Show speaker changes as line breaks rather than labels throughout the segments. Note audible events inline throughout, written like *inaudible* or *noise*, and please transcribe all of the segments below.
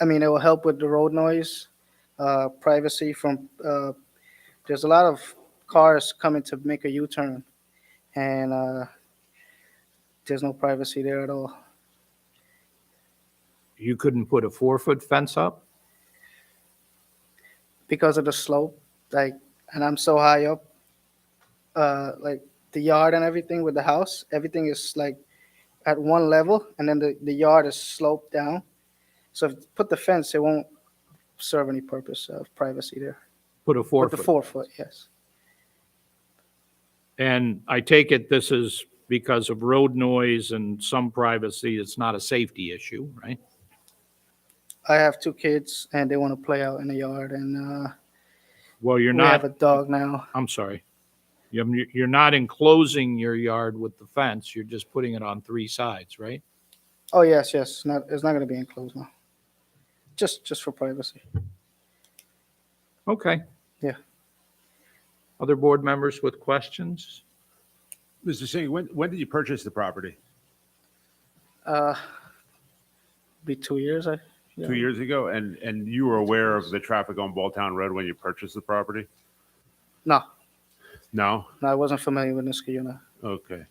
I mean, it will help with the road noise, uh, privacy from, uh, there's a lot of cars coming to make a U-turn, and uh, there's no privacy there at all.
You couldn't put a four-foot fence up?
because of the slope, like, and I'm so high up, uh, like the yard and everything with the house, everything is like at one level, and then the, the yard is sloped down. So if you put the fence, it won't serve any purpose of privacy there.
Put a
With the
four-foot?
four foot, yes,
And I take it this is because of road noise and some privacy, it's not a safety issue, right?
I have two kids, and they want to play out in the yard, and uh,
Well, you're
we have a
not,
dog now.
I'm sorry. You're you're not enclosing your yard with the fence, you're just putting it on three sides, right?
Oh yes, yes, it's not it's not going to be enclosed now. Just just for privacy.
Okay.
Yeah.
Other board members with questions?
Mr. Singh, when, when did you purchase the property?
Uh, be two years, I.
Two years ago? And, and you were aware of the traffic on Balltown Road when you purchased the property?
No,
No?
No, I wasn't familiar with Niskayuna.
Okay.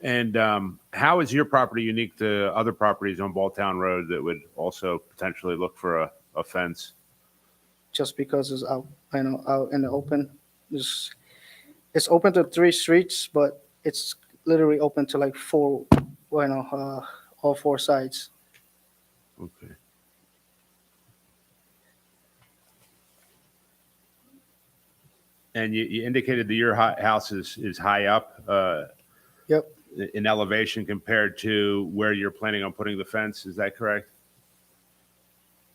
And um, how is your property unique to other properties on Balltown Road that would also potentially look for a, a fence?
just because it's out, you know, out in the open. It's, it's open to three streets, but it's literally open to like four, you know, uh, all four sides.
Okay. And you, you indicated that your hi- house is, is high up uh,
Yep,
in elevation compared to where you're planning on putting the fence. Is that correct?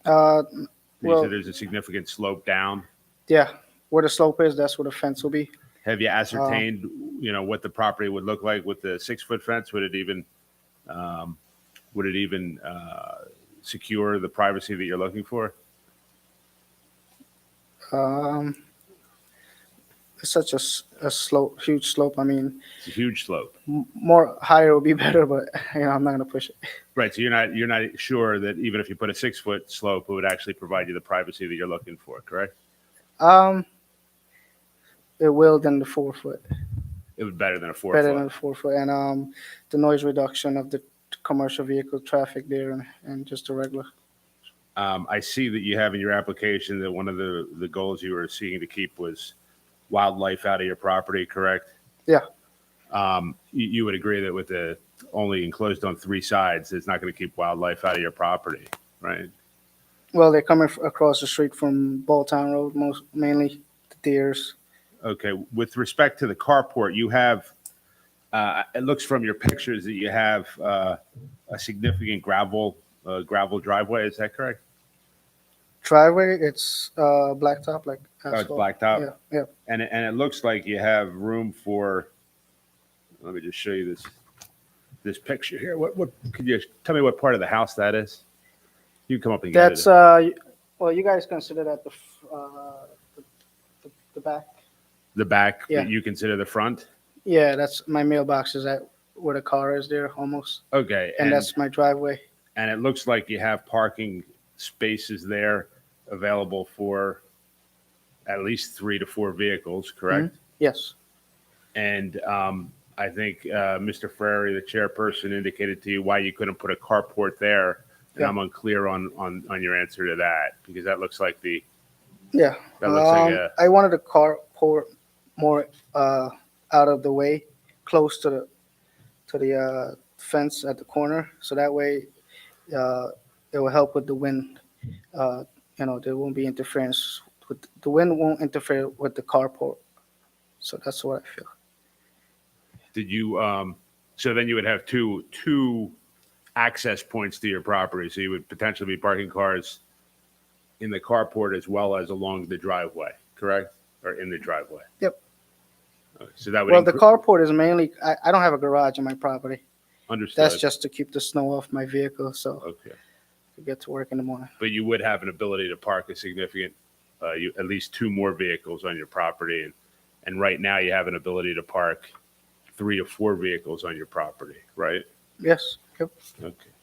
uh,
You
Well-
said there's a significant slope down.
yeah, where the slope is, that's where the fence will be.
Have you ascertained, you know, what the property would look like with the six-foot fence? Would it even, um, would it even, uh, secure the privacy that you're looking for?
Um, it's such a, s- a slope, huge slope, I mean,
It's a huge slope.
m- more higher would be *laughs* better, but, you know, I'm not gonna push it.
Right, so you're not, you're not sure that even if you put a six-foot slope, it would actually provide you the privacy that you're looking for, correct?
Um, it will than the four foot.
It would be better than a
better than
four-foot.
four foot, and um, the noise reduction of the commercial vehicle traffic there and, and just the regular.
Um, I see that you have in your application that one of the, the goals you were seeking to keep was wildlife out of your property, correct?
Yeah,
um, you, you would agree that with the only enclosed on three sides, it's not going to keep wildlife out of your property, right?
well, they're coming f- across the street from Balltown Road, most mainly the deers.
Okay, with respect to the carport, you have, uh, it looks from your pictures that you have, uh, a significant gravel, uh, gravel driveway, is that correct?
Driveway, it's uh, blacktop, like
Oh, it's
asphalt.
blacktop?
Yeah, yeah.
And, it- and it looks like you have room for, let me just show you this, this picture here. What, what, could you tell me what part of the house that is? You can come up and get it.
That's uh, y- well, you guys consider that the f- uh, the, the, the back.
The back,
yeah.
that you consider the front?
Yeah, that's my mailbox is at where the car is there almost,
Okay.
and that's my driveway.
and it looks like you have parking spaces there available for at least three to four vehicles, correct?
Mm-hmm. Yes,
And um, I think uh, Mr. Ferrari, the chairperson, indicated to you why you couldn't put a carport there. And
Yeah.
I'm unclear on, on, on your answer to that because that looks like the,
yeah.
that looks
Um,
like a,
I wanted a carport more uh, out of the way, close to the to the uh, fence at the corner, so that way uh, it will help with the wind. Uh, you know, there won't be interference with the wind won't interfere with the carport. So that's what I feel.
did you, um, so then you would have two, two access points to your property. So you would potentially be parking cars in the carport as well as along the driveway, correct? Or in the driveway?
Yep.
So that would.
Well, the
incre-
carport is mainly I, I don't have a garage in my property.
Understood.
That's just to keep the snow off my vehicle, so
Okay.
I get to work in the morning.
But you would have an ability to park a significant, uh, you, at least two more vehicles on your property. And, and right now you have an ability to park three to four vehicles on your property, right?
Yes. Yep.
Okay.